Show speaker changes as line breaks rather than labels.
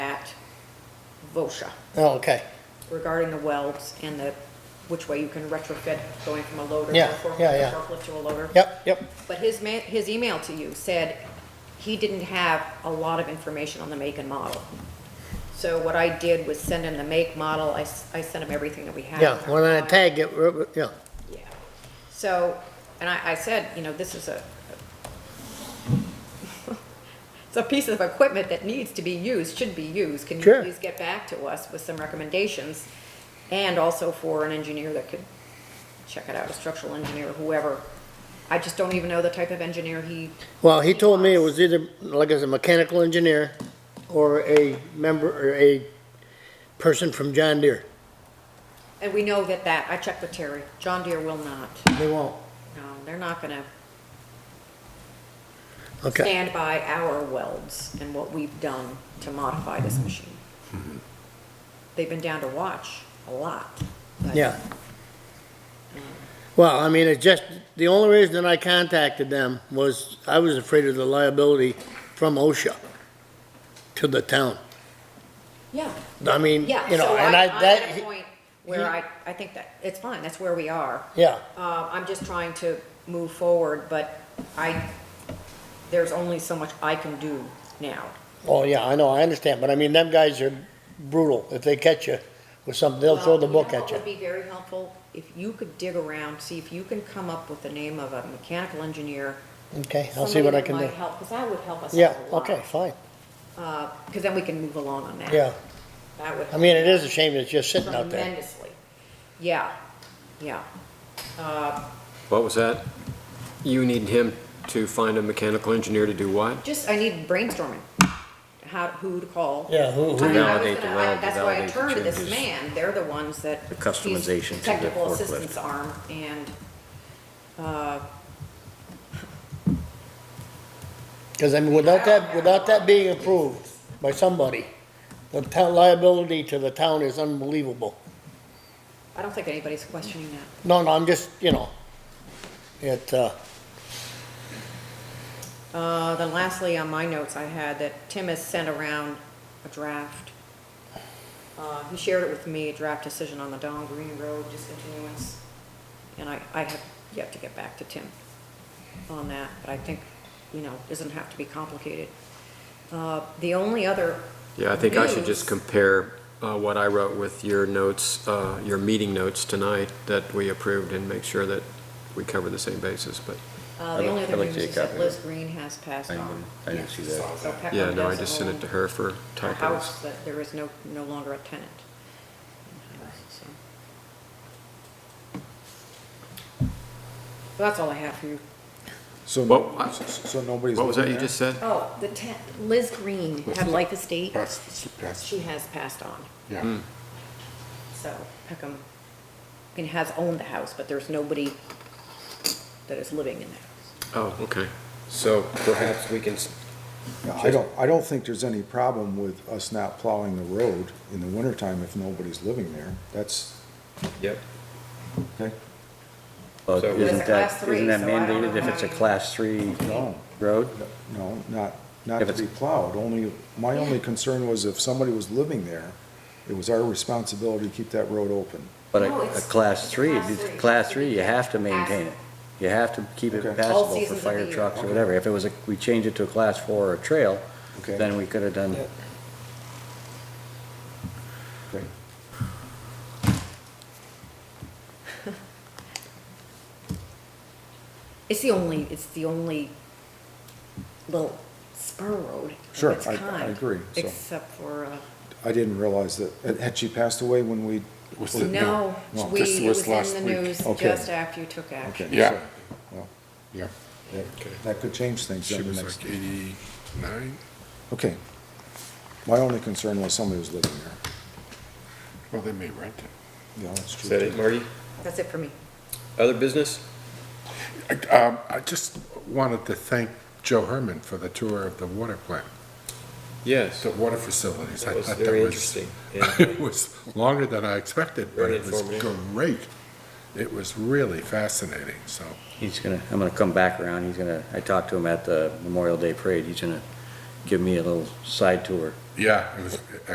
VOSHA
Oh, okay,
regarding the welds and the, which way you can retrofit going from a loader to a
Yeah,
forklift,
yeah,
a
yeah.
forklift to a loader.
yep, yep,
But his ma, his email to you said he didn't have a lot of information on the make and model. So what I did was send him the make model, I, s- I sent him everything that we had.
yeah,
in our
when I
file.
tag it, r- r- yeah,
Yeah. So, and I, I said, you know, this is a, it's a piece of equipment that needs to be used, should be used. Can you
Sure.
please get back to us with some recommendations? And also for an engineer that could check it out, a structural engineer, whoever. I just don't even know the type of engineer he,
well, he told me it was either, like I said, mechanical engineer or a member, or a person from John Deere,
and we know that that, I checked with Terry, John Deere will not.
they won't,
No, they're not gonna
okay,
stand by our welds and what we've done to modify this
Mm-hmm.
machine. They've been down to watch a lot. but-
yeah. Well, I mean, it's just, the only reason that I contacted them was, I was afraid of the liability from OSHA to the town,
Yeah,
I mean, you
yeah,
know,
so
and
I,
I,
I'm
that.
at a point where I, I think that, it's fine, that's where we are.
Yeah,
Uh, I'm just trying to move forward, but I, there's only so much I can do now.
oh, yeah, I know, I understand, but I mean, them guys are brutal, if they catch you with something, they'll throw
Well,
the
Um, you
book
know
at
what
you.
would be very helpful? If you could dig around, see if you can come up with the name of a mechanical engineer
Okay, I'll see what I can
Somebody
do.
that might help, because that would help us
Yeah,
out a lot.
okay, fine,
Because Uh, then we can move along on that.
yeah.
That would
I mean, it is a shame it's just sitting out there.
tremendously. Yeah, yeah.
What was that? You need him to find a mechanical engineer to do what?
Just, I need brainstorming, how, who to call.
Yeah, who-
I mean, I was
Validate the
gonna-
well,
I- That's why I
validate the
turned to this
changes.
man, they're the ones that.
The customization
he's
to the
Technical
forklift.
assistance arm and,
Because I mean, without that, without that being approved by somebody, the town liability to the town is unbelievable.
I don't think anybody's questioning that.
No, no, I'm just, you know, it, uh,
Uh, Then lastly, on my notes, I had that Tim has sent around a draft. Uh, He shared it with me, a draft decision on the Don Green Road discontinuance. And I, I have yet to get back to Tim on that, but I think, you know, doesn't have to be complicated. Uh, The only other.
Yeah, I think I should just
news-
compare uh, what I wrote with your notes, uh, your meeting notes tonight that we approved and make sure that we cover the same basis, but,
Uh,
I'd
The
like-
only
I'd
other
like to
news
get
is that
copy of
Liz
it.
Green has passed
I
on.
didn't- I didn't see that.
So Peckham
yeah, no, I
does
just sent
own
it to her for
A
typos.
house that there is no, no longer a tenant. So Well, that's all I have for you.
So,
What-
no- so nobody's.
What was that
looking
you
there?
just said?
Oh, the ten, Liz Green had life estate.
That's, that's,
She has passed on,
yeah.
so Peckham, and has owned the house, but there's nobody that is living in the house.
Oh, okay. So perhaps we can, s-
Yeah, I don't, I don't think there's any problem with us not plowing the road in the wintertime if nobody's living there. That's,
yep.
okay,
Well,
So-
It's a
Uh, Isn't
class
that,
three,
isn't that
so I don't
mandated
know
if it's
how
a
you-
class three
no,
road?
no, not, not
If
to
it's-
be plowed. Only, my only concern was if somebody was living there, it was our responsibility to keep that road open.
But
No,
a, a
it's-
class three,
class
if it's
three.
class three, you have to maintain it. You have to keep it
Okay. All
passable for
seasons of the
fire
year.
trucks or whatever. If it was a, we changed it to a class four or a trail,
Okay.
then we could have done,
Okay.
It's the only, it's the only little spur road
Sure,
of its
I- I
kind,
agree, so.
Except for, uh,
I didn't realize that, had she passed away when we?
Was it-
No,
no,
we,
this
it
was
was in
last
the
week.
news
Okay.
just after you took
Okay,
action.
Yeah.
so, well,
Yeah,
that-
Okay.
That could change things
she
then the
was
next,
like eighty-nine.
okay. My only concern was somebody was living there.
Well, they may rent it.
Yeah, that's true.
Is that
too.
it, Marty?
That's it for me.
Other business?
I, um, I just wanted to thank Joe Herman for the tour of the water plant,
Yes.
the water facilities. I
That was
thought
very
was-
interesting. Yeah.
It was longer than I expected, but
Very
it was
informative.
great. It was really fascinating, so.
he's gonna, I'm gonna come back around. He's gonna, I talked to him at the Memorial Day Parade. He's gonna give me a little side tour.
Yeah, it was